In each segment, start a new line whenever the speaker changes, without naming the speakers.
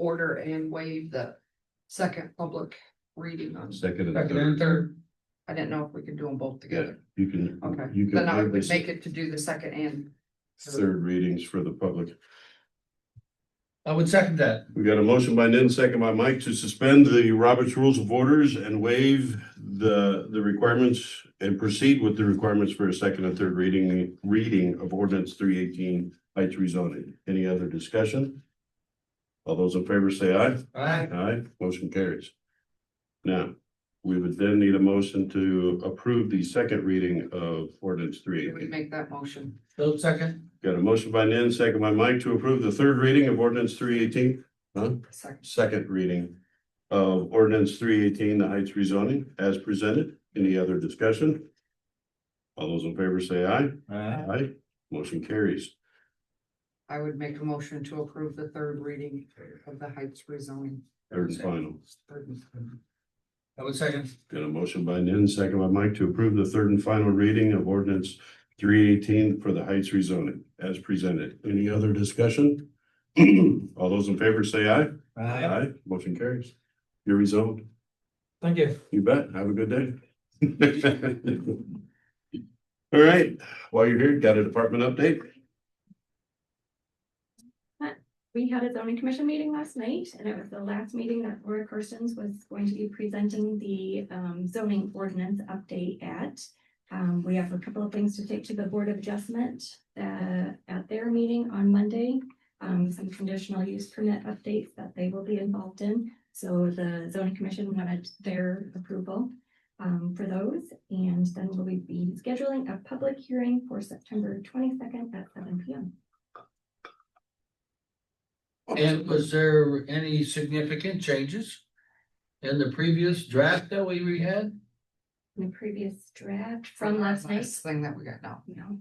order and waive the second public reading on.
Second and
Second and
third,
third,
I didn't know if we could do them both together.
you can,
Okay,
you can
then I
have
would
this
make it to do the second and.
third readings for the public.
I would second that.
We got a motion by Nin, second by Mike to suspend the Roberts Rules of Orders and waive the, the requirements and proceed with the requirements for a second and third reading, reading of ordinance three eighteen heights rezoning. Any other discussion? All those in favor say aye.
Alright,
Aye, motion carries. Now, we would then need a motion to approve the second reading of ordinance three
Did we
eighteen.
make that motion?
Phil second,
Got a motion by Nin, second by Mike to approve the third reading of ordinance three eighteen,
Second,
second reading of ordinance three eighteen, the Heights rezoning as presented. Any other discussion? All those in favor say aye.
Alright,
Aye, motion carries.
I would make a motion to approve the third reading of the Heights rezoning.
Third and final.
Third and final.
I would second,
Got a motion by Nin, second by Mike to approve the third and final reading of ordinance three eighteen for the Heights rezoning as presented. Any other discussion? All those in favor say aye.
Alright,
Motion carries. You're rezoned.
thank you.
You bet. Have a good day. All right, while you're here, got a department update?
We had a zoning commission meeting last night, and it was the last meeting that Laura Carstens was going to be presenting the um, zoning ordinance update at. Um, we have a couple of things to take to the Board of Adjustment uh, at their meeting on Monday. Um, some conditional use permit updates that they will be involved in, so the zoning commission wanted their approval um, for those, and then we'll be scheduling a public hearing for September twenty-second at seven P M.
And was there any significant changes? In the previous draft that we re- had?
in the previous draft from last night.
Last Thing that we got now.
No.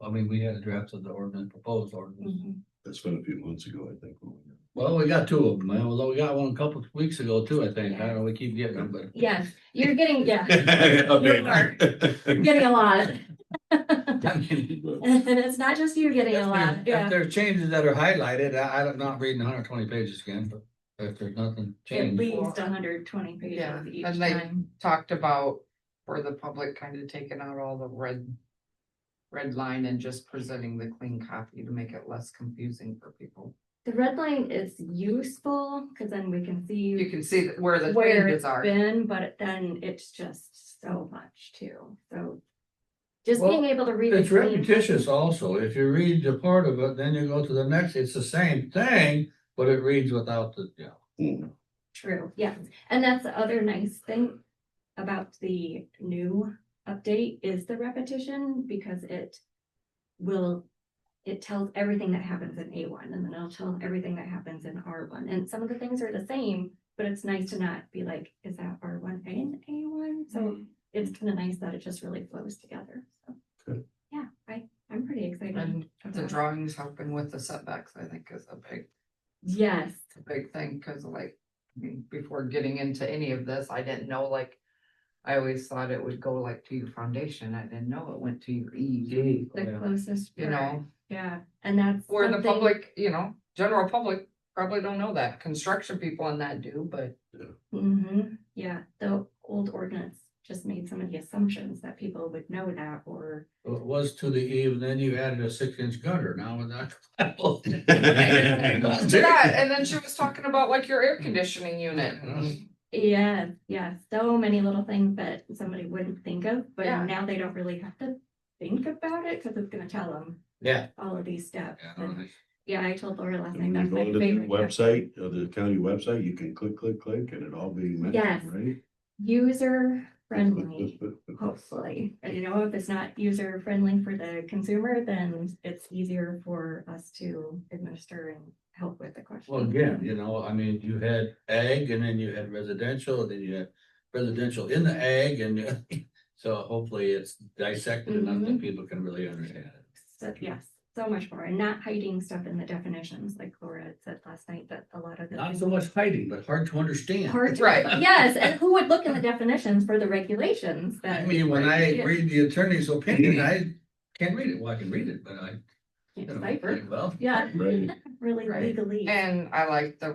I mean, we had a draft of the ordinance, proposed ordinance.
Mhm.
That's been a few months ago, I think. when we-
Well, we got two of them, man, although we got one a couple of weeks ago too, I think, I don't know, we keep getting them, but.
Yes, you're getting, yeah,
Update.
you're getting a lot.
I mean,
And it's not just you getting a
If there-
lot,
if
yeah.
there are changes that are highlighted, I, I'm not reading hundred twenty pages again, but if there's nothing
At
changed.
least hundred twenty
Yeah,
pages each
and they-
time.
Talked about for the public kind of taking out all the red. Red line and just presenting the clean copy to make it less confusing for people.
The red line is useful, because then we can
You
see
can see that where the
where
changes
it's
are.
been, but then it's just so much too, so. Just
Well,
being able to read. it
It's
clean.
repetitious also. If you read the part of it, then you go to the next, it's the same thing, but it reads without the, you know.
Hmm.
True, yes, and that's the other nice thing about the new update is the repetition because it will, it tells everything that happens in A one and then it'll tell everything that happens in R one. And some of the things are the same, but it's nice to not be like, is that R one and A one? So it's kind of nice that it just really flows together. So,
Good.
yeah, I, I'm pretty excited.
And the drawings helping with the setbacks, I think is a big,
Yes,
a big thing, cause like, I mean, before getting into any of this, I didn't know, like. I always thought it would go like to your foundation, I didn't know it went to your E. EEG,
the
Yeah.
closest.
you know,
Yeah, and that's.
where the
something-
public, you know, general public probably don't know that, construction people and that do, but.
Mm-hmm, yeah, the old ordinance just made some of the assumptions that people would know that or.
It was to the E, and then you added a six inch gutter now with that.
Yeah,
uh,
and then she was talking about like your air conditioning unit,
Yeah, yeah, so many little things that somebody wouldn't think of, but
Yeah.
now they don't really have to think about it because it's gonna tell them
Yeah.
all of these steps.
Yeah, I don't
And,
think-
Yeah, I told Laura last
And
night,
you
that's
go
my
to the
favorite. step.
website, uh, the county website, you can click, click, click, and it all be. mentioned,
Yes.
right?
User friendly, hopefully. And you know, if it's not user friendly for the consumer, then it's easier for us to administer and help with the question.
Well, again, you know, I mean, you had ag and then you had residential, and then you had residential in the ag and you- so hopefully it's dissected enough that
Mhm.
people can really understand it.
So, yes, so much more, and not hiding stuff in the definitions, like Laura had said last night, that a lot of the.
Not so much hiding, but hard to understand.
Hard to-
right?
Yes, and who would look in the definitions for the regulations
I
that?
mean, when I
Yeah.
read the attorney's opinion, I can't read it, well, I can read it, but I, you know,
Cipher,
well.
yeah,
Right.
really
Right.
legally.
And I like the